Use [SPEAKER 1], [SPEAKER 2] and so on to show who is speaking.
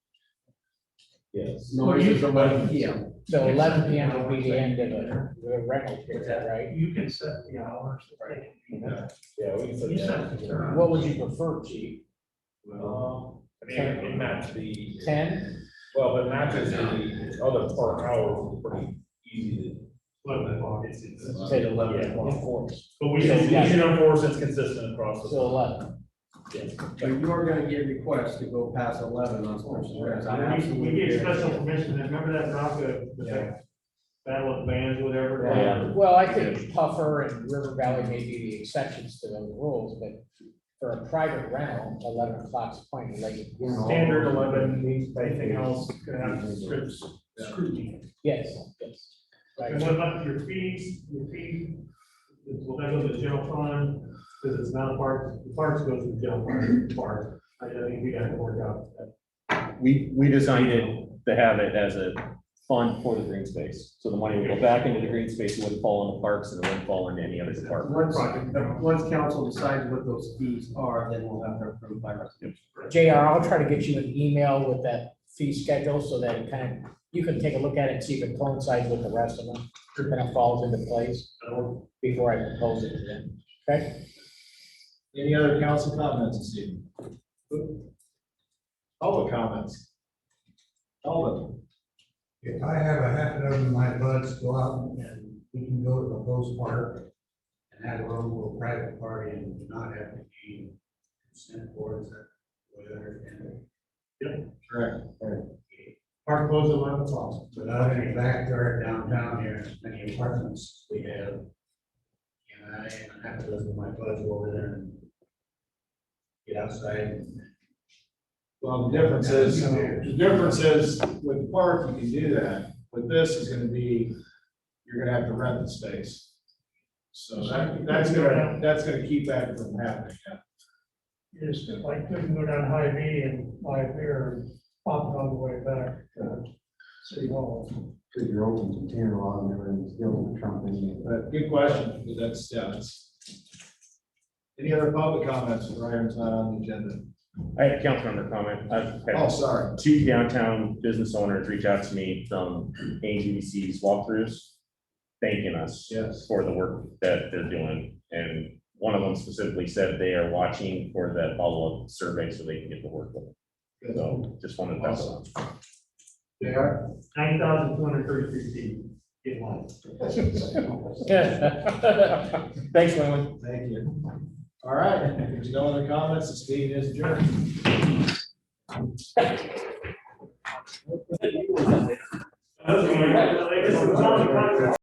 [SPEAKER 1] Yes.
[SPEAKER 2] Noise is a weapon.
[SPEAKER 3] Yeah. So eleven P M will be the end of the the rental period, right?
[SPEAKER 4] You can set the hours. that they-
[SPEAKER 1] Yeah, we can
[SPEAKER 4] You
[SPEAKER 1] put
[SPEAKER 4] set the
[SPEAKER 1] that.
[SPEAKER 4] term.
[SPEAKER 3] What would you prefer, chief?
[SPEAKER 1] Well, I mean, it matches the.
[SPEAKER 3] Ten?
[SPEAKER 1] Well, but matches the other part hours is pretty easy
[SPEAKER 4] Eleven o'clock is in the-
[SPEAKER 3] Say
[SPEAKER 1] Yeah.
[SPEAKER 3] eleven, of course.
[SPEAKER 1] to. But we
[SPEAKER 3] So,
[SPEAKER 1] can, we
[SPEAKER 3] yeah.
[SPEAKER 1] can enforce it's consistent across
[SPEAKER 3] So
[SPEAKER 1] the.
[SPEAKER 3] eleven.
[SPEAKER 2] But you're gonna get requests to go past eleven on special events. I'm
[SPEAKER 4] We we
[SPEAKER 2] absolutely
[SPEAKER 4] gave
[SPEAKER 2] guarantee
[SPEAKER 4] special
[SPEAKER 2] it.
[SPEAKER 4] permission, and remember that Bronco, the battle of bands, whatever.
[SPEAKER 1] Yeah.
[SPEAKER 3] Well, I think Puffer and River Valley may be the exceptions to those rules, but for a private rental, eleven o'clock's plenty late.
[SPEAKER 4] Standard eleven, anything else could have strict scrutiny.
[SPEAKER 3] Yes, yes. Right.
[SPEAKER 4] And what about your fees, your fee, will that go to the general fund, because it's not a park, the parks goes to the general fund, park. I I think we gotta work out that.
[SPEAKER 5] We, we designed it to have it as a fund for the green space. So the money would go back into the green space, it wouldn't fall in the parks and it wouldn't fall into any other department.
[SPEAKER 2] Once, once council decides what those fees are, then we'll have to approve by resolution.
[SPEAKER 3] JR, I'll try to get you an email with that fee schedule so that it kind of, you can take a look at it and see if it coincides with the rest of them. It kind of falls into place before I propose it to them.
[SPEAKER 6] Any other council comments this evening? Public comments? Alden?
[SPEAKER 7] If I have a half a dozen of my buds go out and we can go to the post park and have a little private party and not have to be sent for, is that what I understand? it?
[SPEAKER 6] Correct. Park goes at eleven o'clock.
[SPEAKER 7] But out in the backyard downtown here, as many apartments we have. And I and a half a dozen of my buds go over there and get outside.
[SPEAKER 6] Well, the difference is, the difference is with the park, you can do that. With this is gonna be, you're gonna have to rent the space. So that, that's gonna, that's gonna keep that from happening. yeah.
[SPEAKER 4] Is like, couldn't go down high V and buy a beer and pop it on the way back to City Hall.
[SPEAKER 8] Cause you're open to ten or eleven, everything's still trumping.
[SPEAKER 6] But good question, but that's, yeah, that's. Any other public comments for items not on the agenda?
[SPEAKER 5] I had a council member comment. I've
[SPEAKER 6] Oh,
[SPEAKER 5] had
[SPEAKER 6] sorry.
[SPEAKER 5] two downtown business owners reach out to me from AGDC's walkthroughs, thanking us
[SPEAKER 6] Yes.
[SPEAKER 5] for the work that they're doing. And one of them specifically said they are watching for that follow-up survey so they can get the work done. So just wanted to pass it on.
[SPEAKER 6] They are?
[SPEAKER 4] Nine thousand two hundred thirty-three feet in line.
[SPEAKER 5] Thanks, Wayland.
[SPEAKER 6] Thank you. All right, if there's no other comments, this meeting is adjourned.
[SPEAKER 4] That's what we-